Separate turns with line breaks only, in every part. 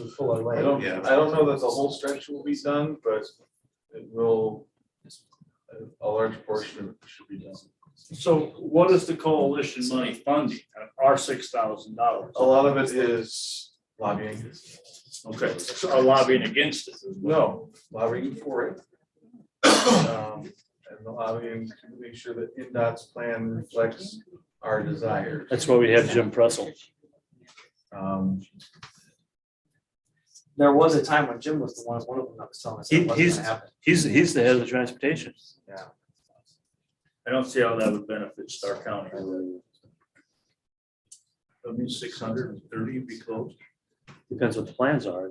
and fuller
I
lane.
don't, I don't know that the whole stretch will be done, but it will, a- a large portion of it should be done.
So what is the coalition money funding, our six thousand dollars?
A lot of it is lobbying,
Okay, so are lobbying against it as well.
no, lobbying for it. Um, And lobbying to make sure that NDOT's plan reflects our desires.
That's why we have Jim Pressel.
Um,
There was a time when Jim was the one, one of them that was telling us
He-
it wasn't
he's-
gonna happen.
He's, he's the head of the transportation.
Yeah.
I don't see how that would benefit Star County. I mean, six hundred and thirty would be close. Depends what the plans are.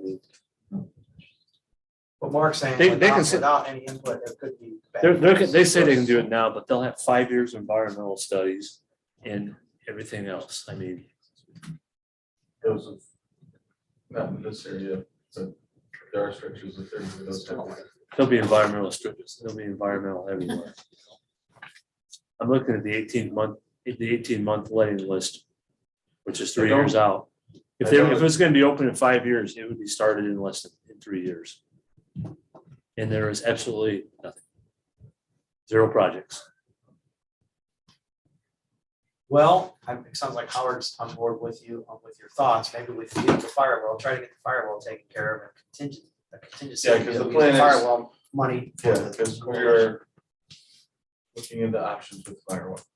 But Mark's saying
They- they can
without,
sit-
without any input, there could be. bad
They're, they're, they say they can do
results.
it now, but they'll have five years of environmental studies and everything else. I mean,
those of, not in this area, but there are stretches that there, those type of.
There'll be environmental strips, there'll be environmental everywhere. I'm looking at the eighteen month, the eighteen month letting list, which is three years out. If they, if it's gonna be open in five years, it would be started in less than, in three years. And there is absolutely nothing. Zero projects.
Well, I- it sounds like Howard's on board with you, on with your thoughts. Maybe we can get the firewall, try to get the firewall taken care of and contingent, a contingency.
Yeah, 'cause the
that we
plan
use
is-
Firewall money. for
Yeah,
the-
because we are looking into options with fireworks.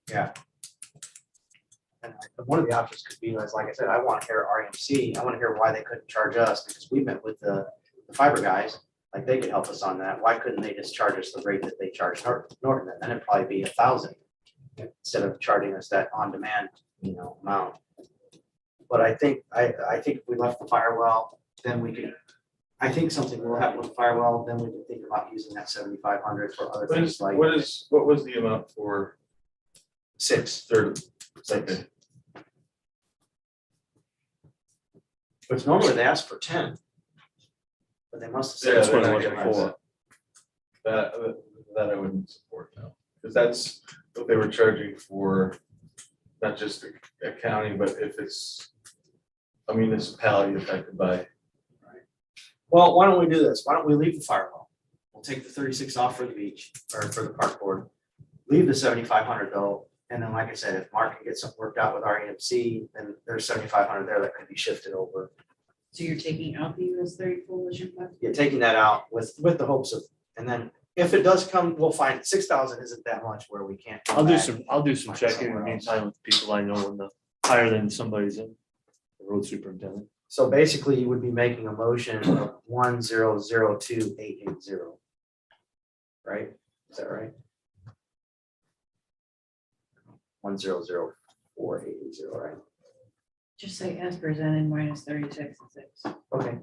And one of the options could be, as like I said, I want to hear RMC, I want to hear why they couldn't charge us, because we met with the the fiber guys. Like they could help us on that, why couldn't they just charge us the rate that they charged Nor- Norton, and then it'd probably be a thousand. Instead of charging us that on-demand, you know, amount. But I think, I, I think if we left the firewall, then we could, I think something will happen with firewall, then we can think about using that seventy-five hundred for other
What is,
things like
what is, what was the amount for
six.
third, second?
Which normally they ask for ten. But they must have
Yeah,
said.
they're
what I
not
was
giving
for.
us That, that- that I wouldn't support now, because that's what they were charging for, not just a- a county, but if it's a municipality affected by,
Well, why don't we do this? Why don't we leave the firewall? We'll take the thirty-six off for the beach or for the park board. Leave the seventy-five hundred though, and then like I said, if Mark can get something worked out with REMC, then there's seventy-five hundred there that could be shifted over.
So you're taking out the US thirty coalition fund?
You're taking that out with, with the hopes of, and then if it does come, we'll find six thousand isn't that much where we can't. come
I'll do
back.
some, I'll do some
Find
checking in the
somewhere else.
meantime with people I know in the, higher than somebody's in. the Road superintendent.
So basically you would be making a motion of one zero zero two eight eight zero. Right? Is that right? One zero zero four eight eight zero, right?
Just say as presented minus thirty-six and six.
Okay.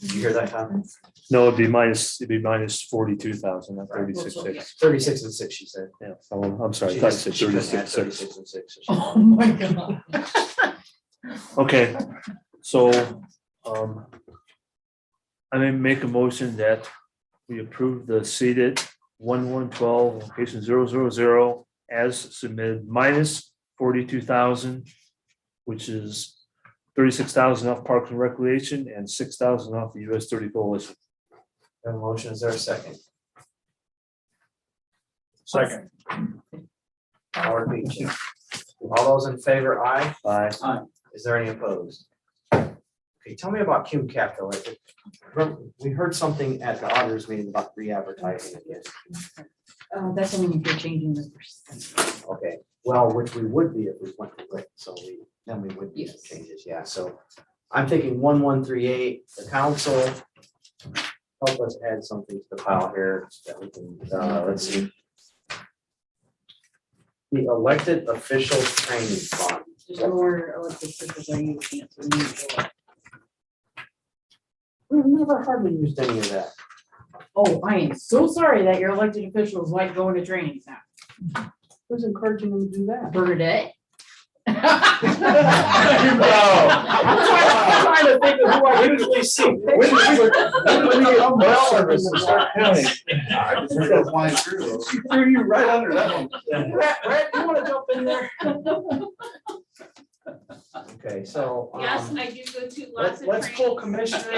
Did you hear that, Tom?
No, it'd be minus, it'd be minus forty-two thousand, not thirty-six, six.
Thirty-six and six, she said.
Yeah, I'm I'm sorry, I
She
thought you
just-
said
she couldn't add
thirty-six, six.
Thirty-six and six. so she-
Oh, my God.
Okay, so, um. I may make a motion that we approve the seated one one twelve, location zero zero zero as submitted minus forty-two thousand. Which is thirty-six thousand off Parks and Recreation and six thousand off the US thirty coalition.
Have a motion, is there a second?
Second.
Howard Beach. All those in favor, aye?
Aye.
Is there any opposed? Okay, tell me about Cume Cap though. I- I- We heard something at the auditors meeting about re-advertising again.
Uh, that's only if you're changing the percent.
Okay, well, which we would be if we went to lit, so we, then we would be some
Yes.
changes, yeah, so. I'm thinking one, one, three, eight, the council. Help us add something to the pile here that we can, uh, let's see. The elected official training fund.
Just lower elected officials are you canceling?
We've never hardly used any of that.
Oh, I am so sorry that your elected officials like going to trainings now.
Who's encouraging them to do that?
Bernadette.
I'm trying to think of who I usually see.
When did we- when did we get umbrella service in Stark County? She threw you right under that one.
Brad, Brad, you wanna jump in there? Okay, so. um,
Yes, I do go to
let-
lots of trainings.
um, Let's pull commissioner